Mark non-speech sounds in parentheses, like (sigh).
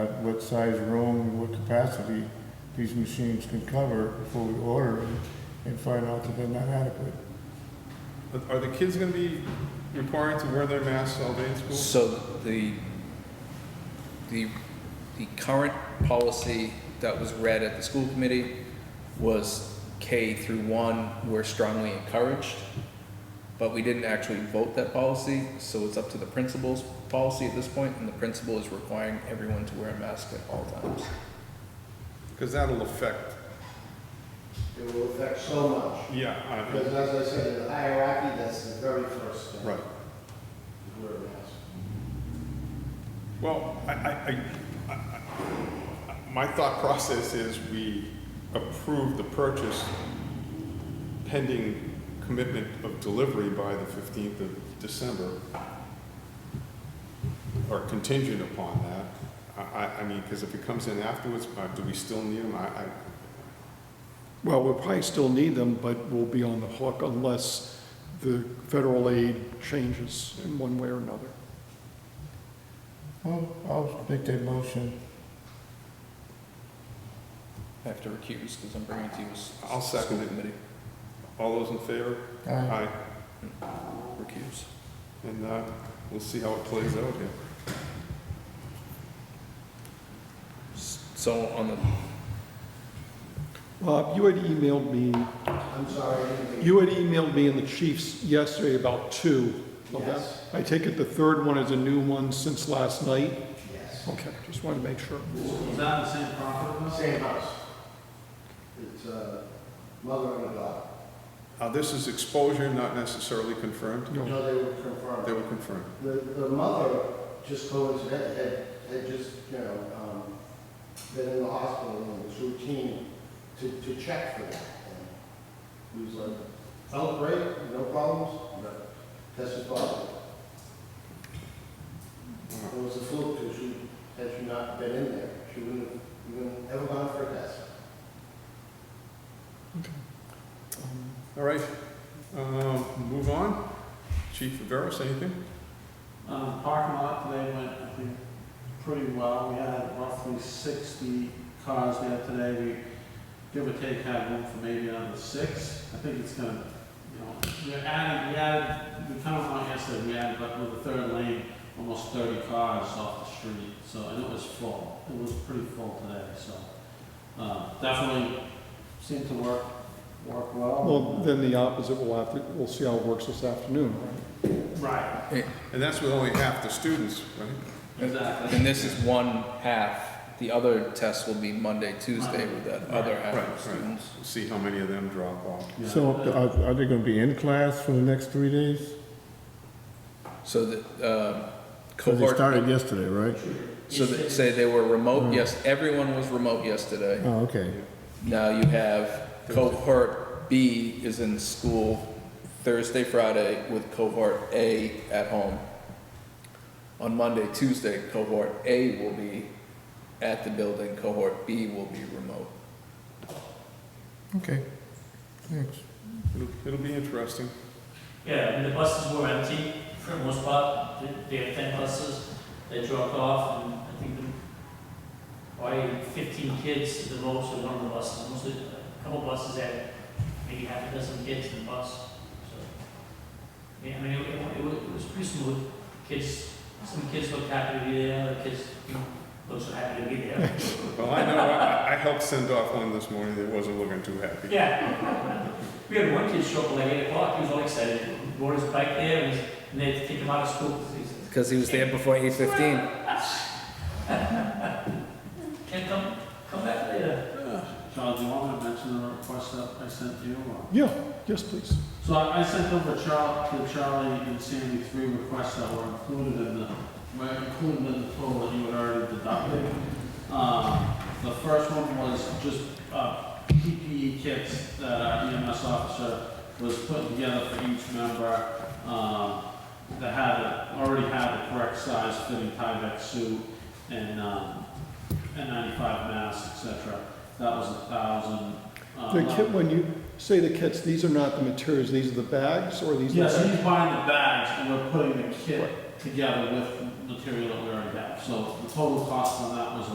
what size room, and what capacity these machines can cover before we order them and find out that they're not adequate. But Are the kids gonna be required to wear their masks all day in school? So the, the, the current policy that was read at the school committee was K through one were strongly encouraged, but we didn't actually vote that policy, so it's up to the principal's policy at this point, and the principal is requiring everyone to wear a mask at all times. Because that'll affect, It will affect so much, yeah, I- because as I said, in the hierarchy, that's the very first step. right. Wear a mask. Well, I, I, I- I, I, my thought process is we approve the purchase pending commitment of delivery by the fifteenth of December, or contingent upon that. I, I, I mean, because if it comes in afterwards, uh, do we still need them? I, I, Well, we'll probably still need them, but we'll be on the hook unless the federal aid changes in one way or another. Well, I'll make that motion. I have to recuse because I'm bringing it to you as. I'll second school it. Committee, all those in favor? Aye. Aye. recuse. And uh, we'll see how it plays out here. So on the, Bob, you had emailed me, I'm sorry, I didn't you had emailed me and the chiefs yesterday about two of them. Yes. I take it the third one is a new one since last night? think- yes. Okay, just wanted to make sure. Is that the same property? Same house. It's a mother and a daughter. Uh, This is exposure, not necessarily confirmed. No. No, they were confirmed. They were confirmed. The, the mother just coincidentally had, had just, you know, um, been in the hospital and it was routine to, to check for that. And He was like, oh, great, no problems, but tested positive. It was a fluke, 'cause she, had she not been in there, she wouldn't have even ever gone for a test. Um, All right, uh, move on. Chief Viveras, anything? Um, parking lot today went, I think, pretty well. We had roughly sixty cars there today. We, give or take, had room for maybe another six. I think it's gonna, you know, we added, we added, we kind of went yesterday, we added like with the third lane, almost thirty cars off the street. So, and it was full. It was pretty full today, so, uh, definitely seemed to work, work well. Well, then the opposite, we'll have to, we'll see how it works this afternoon, right? Right, And that's with only half the students, right? exactly. and this is one half, the other test will be Monday, Tuesday with that other half Right, right. of students. We'll See how many of them drop off. Yeah. So are, are they gonna be in class for the next three days? So the uh, Cause they cohort, started yesterday, right? so that say they were remote, yes, everyone was remote yesterday. Oh, okay. Now you have cohort B is in school Thursday, Friday with cohort A at home. On Monday, Tuesday, cohort A will be at the building, cohort B will be remote. Okay. Thanks. It'll, it'll be interesting. Yeah, and the buses were empty for the most part. They- They had ten buses that dropped off, and I think the, probably fifteen kids at the most were on the buses. Mostly, a couple buses had maybe half a dozen kids in the bus, so. Yeah, I mean, it, it wa- it was, it was pretty smooth. Kids, some kids looked happy to be there, other kids didn't look so happy to be there. (laughs) Well, I know, I, I helped send off one this morning that wasn't looking too happy. Yeah. We had one kid show up at like eight o'clock, he was all excited, rode his bike there, and he's- and they had to take him out of school, 'cause he's Because he was there before eight fifteen. Can't come, come back later. John, do you want me to mention the request that I sent you? or- Yeah, yes, please. So I I sent over Charlie, to Charlie and Sandy three requests that were included in the, were included in the total that you had already deducted. Um, The first one was just uh, PPE kits that our EMS officer was putting together for each member um, that had, a- already had the correct size fitting Tyvek suit and um, and 95 masks, et cetera. That was a thousand. uh, The kit, when you say the kits, these are not the materials, these are the bags, or these? are- Yeah, so he's buying the bags and we're putting the kit together with material that we already have. So the total cost on that was